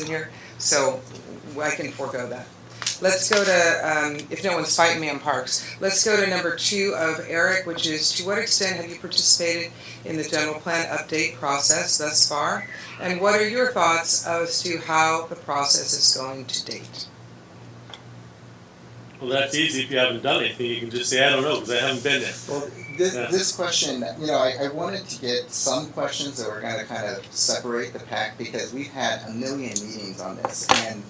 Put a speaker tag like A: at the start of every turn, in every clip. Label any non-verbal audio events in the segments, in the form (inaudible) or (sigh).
A: in here, so I can forego that. Let's go to, um, if no one's fighting me on parks, let's go to number two of Eric, which is to what extent have you participated in the general plan update process thus far? And what are your thoughts as to how the process is going to date?
B: Well, that's easy if you haven't done anything. You can just say, I don't know, because I haven't been there.
C: Well, this,
B: Yeah.
C: this question, you know, I, I wanted to get some questions that were gonna kind of separate the pack because we've had a million meetings on this and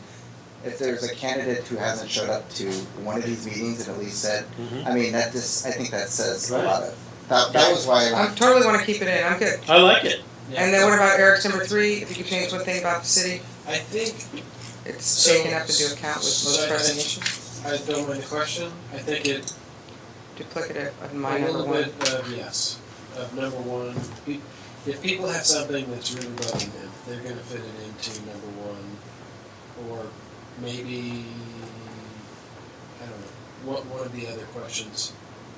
C: if there's a candidate who hasn't showed up to one of these meetings and at least said,
D: Mm-hmm.
C: I mean, that just, I think that says a lot of, that, that was why I
A: I
C: wanted.
A: totally wanna keep it in, I'm good.
B: I like it.
A: And then what about Eric's number three, if you could change one thing about the city,
E: I think
A: it's taken up into account with most presentation,
E: I don't win the question. I think it
A: duplicative of
E: a
A: my number
E: little
A: one.
E: bit of yes, of number one. Pe- If people have something that's really bugging them, they're gonna fit it into number one, or maybe, I don't know, what, one of the other questions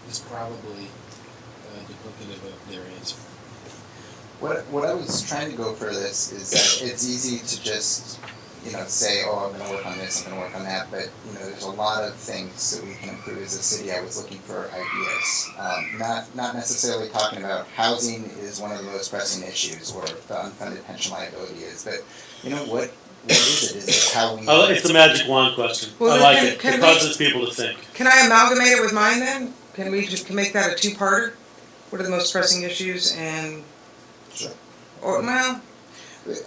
E: is probably uh, duplicative of their answer.
C: What, what I was trying to go for this is that it's easy to just, you know, say, oh, I'm gonna work on this, I'm gonna work on that, but, you know, there's a lot of things that we can improve as a city. I was looking for ideas. Um, not, not necessarily talking about housing is one of the most pressing issues or the unfunded pension liability is, but, you know, what, what is it? Is it how we?
B: I li- Oh, it's a magic wand question.
A: Well,
B: I
A: then
B: like
A: can-
B: it.
A: can
B: it
A: we-
B: causes people to think.
A: Can I amalgamate it with mine then? Can we just make that a two-parter? What are the most pressing issues and?
C: Sure.
A: Or, well,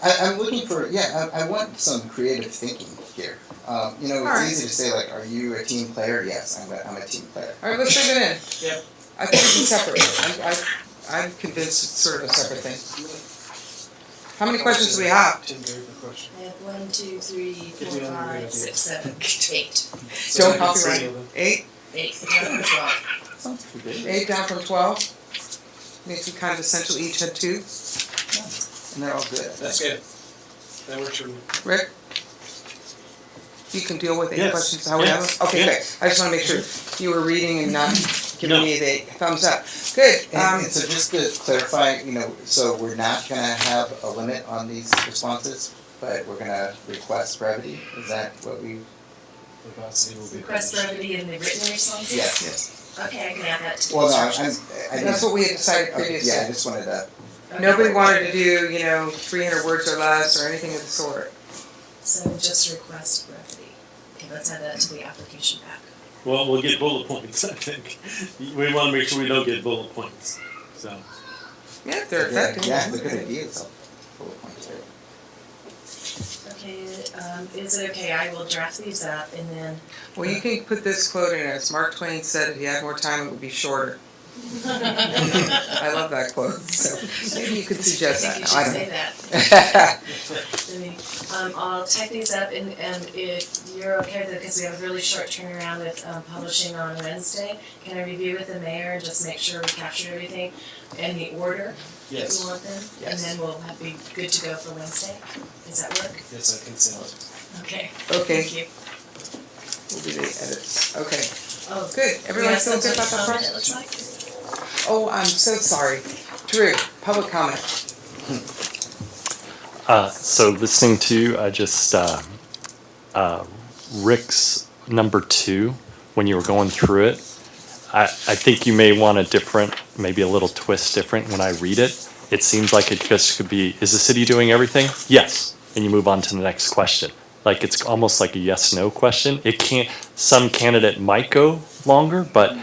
C: I, I'm looking for yeah. I, I want some creative thinking here. Um, you know, it's
A: Alright.
C: easy to say like, "Are you a team player?" Yes, I'm. A, I'm a team player.
A: alright, let's leave it in.
E: Yep.
A: I think we can separate it. I'm, I, I'm convinced it's sort of a separate thing. How many questions do we have?
E: Tim, do you have a question?
F: I have one, two, three,
E: Did
F: four,
E: you have any
F: five, six, seven, eight.
A: Don't
E: So-
A: copyright. Eight,
F: Eight, nine, twelve.
C: Sounds pretty good.
A: eight down from twelve? Makes it kind of essential each had two.
C: And they're all good.
E: That's good. That works for me.
A: Rick? You can deal with eight
B: Yes.
A: questions how we have them? Okay,
B: Yeah.
A: good. I just wanna make sure you were reading and not giving
B: No.
A: me the thumbs up. Good,
C: And,
A: um,
C: and so just to clarify, you know, so we're not gonna have a limit on these responses, but we're gonna request brevity. Is that what we?
E: The policy will be.
F: Request brevity in the written responses?
C: Yes.
F: Okay, I can add that to the
C: Well, no, I'm.
F: instructions.
C: I just-
A: That's what we had decided
C: okay, Yeah, I
A: previously.
C: just wanted to.
F: Okay.
A: Nobody wanted to do, you know, three hundred words or less or anything of the sort.
F: So just request brevity. Okay, let's add that to the application back.
B: Well, we'll get bullet points, (laughs) I think. We want to make sure we don't get bullet points. So,
A: Yeah, if they're effective.
C: Yeah, the good ideas. Bullet points there.
F: Okay, um, is it okay, I will draft these up and then.
A: (laughs)
F: (laughs)
A: Well, you can put this quote in as Mark Twain said, if he had more time, it would be shorter. I love that quote, (laughs) so maybe you could suggest
F: I think
A: that.
F: you
A: No, I
F: should
A: don't know.
F: say
C: (laughs)
F: that. I mean, um, I'll type these up and, and if you're okay with it, because we have a really short turnaround with, um, publishing on Wednesday, can I review with the mayor and just make sure we captured everything and the order we
E: Yes,
F: want them? And
C: Yes.
F: then we'll have, be good to go for Wednesday? Does that work?
E: yes, I can send it.
F: Okay,
A: Okay,
F: thank you.
A: we'll do the edits. Okay,
F: Oh,
A: good. Everyone
F: yes,
A: feel good about
F: that's
A: that
F: what
A: part?
F: It looks like.
A: Oh, I'm so sorry. Drew, public comment.
D: Uh, so listening to uh, just uh, uh, Rick's number two when you were going through it, I, I think you may want a different, maybe a little twist different when I read it. It seems like it just could be, is the city doing everything? Yes. And you move on to the next question. Like it's almost like a yes no question. It can't, some candidate might go longer, but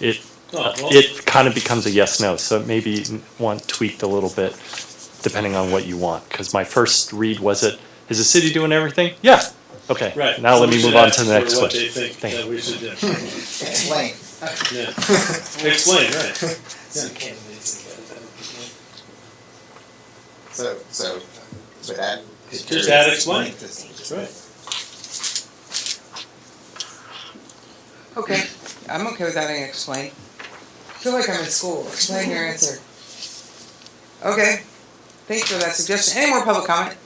D: it,
B: Oh, well.
D: it kind of becomes a yes no. So it may be want tweaked a little bit depending on what you want. Because my first read was it, is the city doing everything? Yeah. Okay.
B: right.
D: Now
B: So
D: let
B: we
D: me
B: should
D: move on
B: ask
D: to the
B: for
D: next
B: what
D: question.
B: They think
D: Thank
B: that
D: you.
B: we should do.
C: (laughs) Explain.
B: Yeah. Explain, right.
E: So candidates and candidates.
C: So, so, so that.
B: Just add explain.
C: Just-
B: Right.
A: Okay, I'm okay without any explain. I feel like I'm in school. Explain your answer. Okay, thanks for that suggestion. Any more public comment?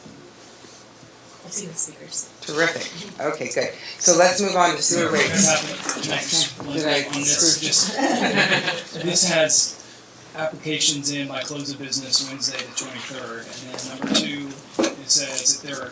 F: I've seen the speakers.
A: Terrific. Okay, good. So let's move on to sewer rates.
G: Can I just one
A: Did I
G: thing on this,
A: screw-
G: just, this has applications in by close of business Wednesday the twenty-third, and then number two, it says if there are